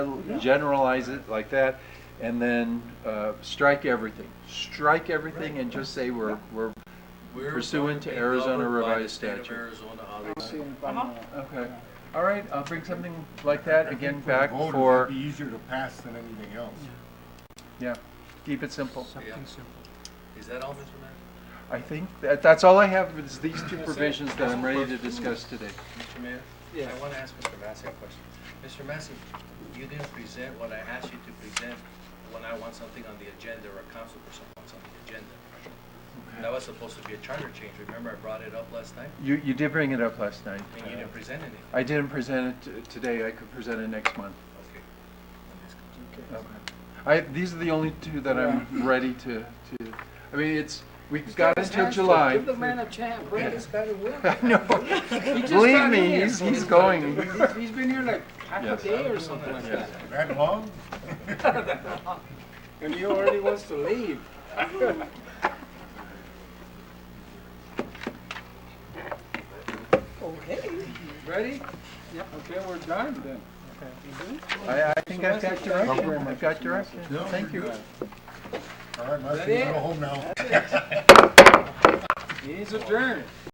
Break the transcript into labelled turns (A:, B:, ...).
A: generalize it like that, and then uh, strike everything. Strike everything and just say we're, we're,
B: We're
A: Pursuant to
B: going be
A: Arizona
B: governed by the
A: revised
B: state of
A: statute.
B: Arizona on this.
A: okay. All right, I'll bring something like that again
C: I think
A: back
C: for the voters,
A: for,
C: It'd be easier to pass than anything else.
A: yeah, keep it simple.
B: Yeah. Is that all, Mr. Mayor?
A: I think that, that's all I have is these two provisions that I'm ready to discuss today.
B: Mr. Mayor? I want to ask Mr. Massey a question. Mr. Massey, you didn't present what I asked you to present when I want something on the agenda or a council person wants on the agenda. That was supposed to be a charter change. Remember I brought it up last night?
A: You, you did bring it up last night.
B: And you didn't present anything.
A: I didn't present it t- today, I could present it next month.
B: Okay.
A: Okay. I, these are the only two that I'm ready to, to, I mean, it's, we've got until July.
D: Give the man a chance, Brandon's got it with him.
A: I know.
D: He just
A: Believe
D: got
A: me,
D: in.
A: he's, he's going.
D: He's- He's been here like half
A: Yes.
D: a day or something like
A: Yeah.
D: that,
C: That long?
D: and he already wants to leave. Okay. Ready? Yeah. Okay, we're done then.
A: I, I think I've got direction. I've got direction.
C: No,
A: Thank
C: you're
A: you.
C: good. All right, Muskie,
D: That
C: go
D: it?
C: home now.
D: He's adjourned.